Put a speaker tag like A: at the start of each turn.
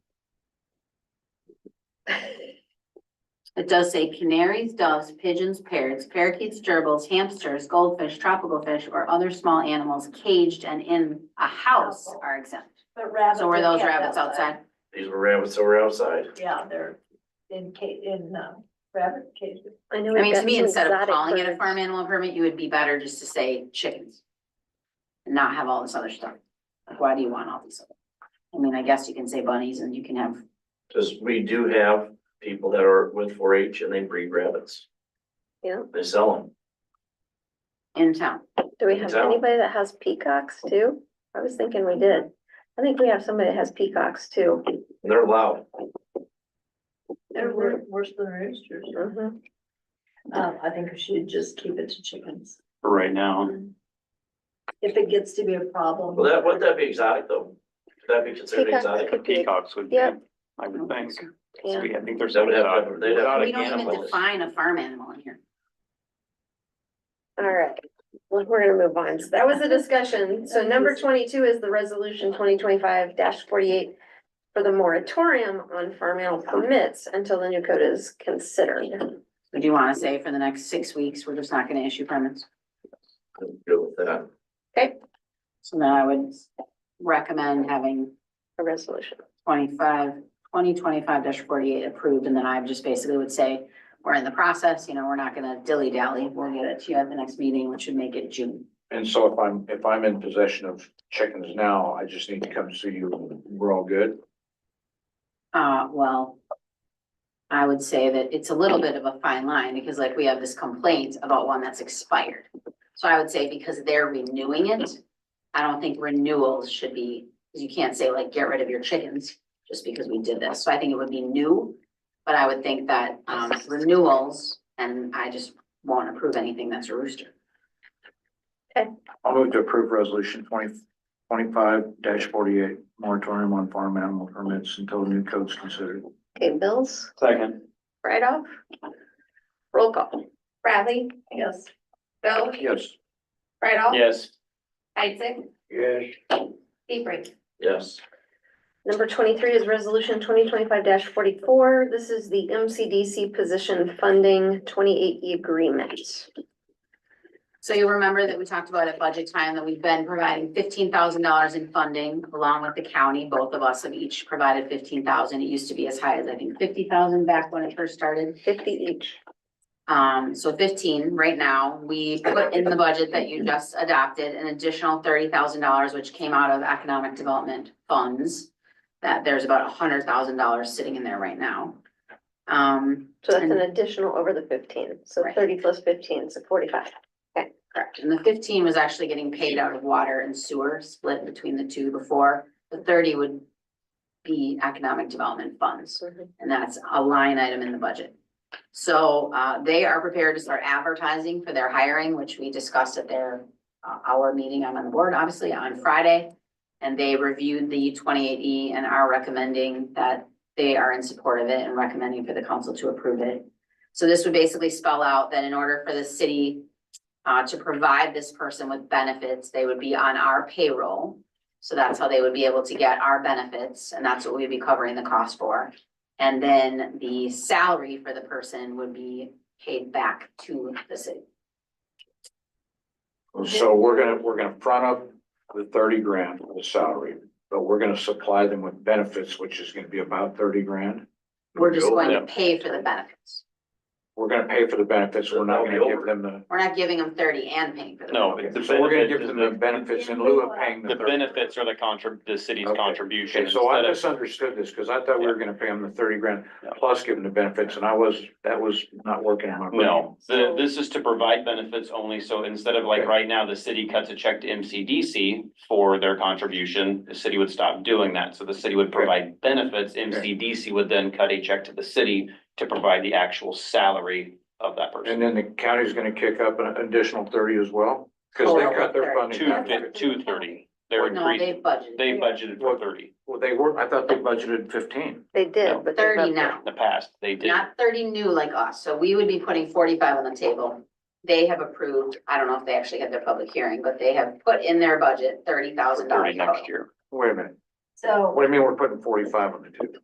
A: It does say canaries, doves, pigeons, parrots, parakeets, gerbils, hamsters, goldfish, tropical fish, or other small animals caged and in a house are exempt.
B: But rabbits.
A: So were
B: are
A: those
B: kept
A: rabbits outside?
C: These were rabbits that were outside.
B: Yeah, they're in ca- in um rabbit cages.
D: I know.
A: I
D: we've
A: mean, to
D: got
A: me,
D: some
A: instead of
D: exotic
A: calling it a
D: birds.
A: farm animal permit, you would be better just to say chickens. And not have all this other stuff. Like, why do you want all these? other? I mean, I guess you can say bunnies and you can have,
C: Cause we do have people that are with four H and they breed rabbits.
D: Yeah.
C: They sell them.
A: in town,
D: Do we have
C: So-
D: anybody that has peacocks too? I was thinking we did. I think we have somebody that has peacocks too.
C: And they're loud.
B: They're wor- worse than roosters.
D: Mhm.
B: Um, I think we should just keep it to chickens.
E: for right now.
B: If it gets to be a problem.
C: Well, that, would that be exotic though? Could that be considered
D: Peacocks
C: exotic?
D: could be,
E: Peacocks would be, I
D: Yeah.
E: would think. So
D: yeah,
E: we- I think there's.
C: That would have-
E: exotic-
C: they'd have-
E: exotic
A: we don't even
E: animals.
A: define a farm animal in here.
D: all right. Well, we're gonna move on. So that was the discussion. So number twenty-two is the resolution twenty twenty-five forty-eight for the moratorium on farm animal permits until the new code is considered.
A: Would you wanna say for the next six weeks, we're just not gonna issue permits?
C: Go with that.
A: So then I would recommend having
D: A resolution.
A: 25 2025 forty-eight approved, and then I just basically would say, we're in the process, you know, we're not gonna dilly-dally, we'll get it to you at the next meeting, which should make it June.
F: And so if I'm, if I'm in possession of chickens now, I just need to come see you, we're all good?
A: Uh, well, I would say that it's a little bit of a fine line, because like we have this complaint about one that's expired. So I would say because they're renewing it, I don't think renewals should be, because you can't say like, get rid of your chickens just because we did this. So I think it would be new. But I would think that, um, renewals, and I just won't approve anything that's a rooster.
F: I'll move to approve resolution twenty, twenty-five forty-eight, moratorium on farm animal permits until new code's considered.
D: Okay, bills,
E: Second,
D: right off. Roll call. Bradley?
B: Yes.
D: Bill?
F: Yes.
D: Right off?
E: yes.
D: Isaac?
F: Yes.
D: Hebrink?
C: Yes.
D: Number twenty-three is resolution twenty twenty-five forty-four. This is the MCDC position funding twenty-eight E agreement.
A: So you'll remember that we talked about at budget time that we've been providing fifteen thousand dollars in funding along with the county. Both of us have each provided fifteen thousand. It used to be as high as, I think, fifty thousand back when it first started.
D: Fifty each.
A: Um, so fifteen right now, we put in the budget that you just adopted an additional thirty thousand dollars, which came out of economic development funds. That there's about hundred thousand dollars sitting in there right now. Um,
D: So that's an
A: And-
D: additional over the fifteen. So
A: Right.
D: thirty plus fifteen, so forty-five.
A: Correct, and the fifteen was actually getting paid out of water and sewer, split between the two before, the thirty would be economic development funds, and that's a line item in the budget. So, uh, they are prepared to start advertising for their hiring, which we discussed at their, uh, our meeting, I'm on the board, obviously, on Friday. And they reviewed the twenty-eight E and are recommending that they are in support of it and recommending for the council to approve it. So this would basically spell out that in order for the city uh, to provide this person with benefits, they would be on our payroll. So that's how they would be able to get our benefits, and that's what we'd be covering the cost for. And then the salary for the person would be paid back to the city.
F: So we're gonna, we're gonna front up the thirty grand for the salary, but we're gonna supply them with benefits, which is gonna be about thirty grand.
A: We're just
C: Go
A: going to
E: them.
A: pay for the benefits.
F: We're gonna pay for the benefits, we're not gonna give them the.
A: We're not giving them thirty and paying for the.
E: No,
F: Okay,
E: it's the
F: So we're gonna
E: benefit-
F: give them the benefits in lieu of paying the.
E: The
F: 30.
E: benefits are the contrib, the city's
F: Okay.
E: contribution
F: Okay, so I
E: instead of,
F: misunderstood this, because I thought we were gonna pay them the thirty grand plus give them the benefits, and I was, that was not working in my brain.
E: no, the, this is to provide benefits only. So instead of like
F: Okay.
E: right now, the city cuts a check to MCDC for their contribution, the city would stop doing that. So the city would provide benefits. MCDC would then cut a check to the city to provide the actual salary of that person.
F: And then the county's gonna kick up an additional thirty as well, because they cut their funding.
E: Two,
F: back.
E: fif- two thirty, they're
A: No, they
E: increasing,
A: budgeted
E: they budgeted for thirty.
F: Well, they were, I thought they budgeted fifteen.
D: They
E: No.
D: did, but. they
A: thirty
D: left it.
A: now.
E: In the past, they did.
A: Not thirty new like us, so we would be putting forty-five on the table. They have approved, I don't know if they actually had their public hearing, but they have put in their budget thirty thousand
E: Thirty
A: dollars.
E: next year.
F: Wait a minute,
B: So.
F: what do you mean we're putting forty-five on the table?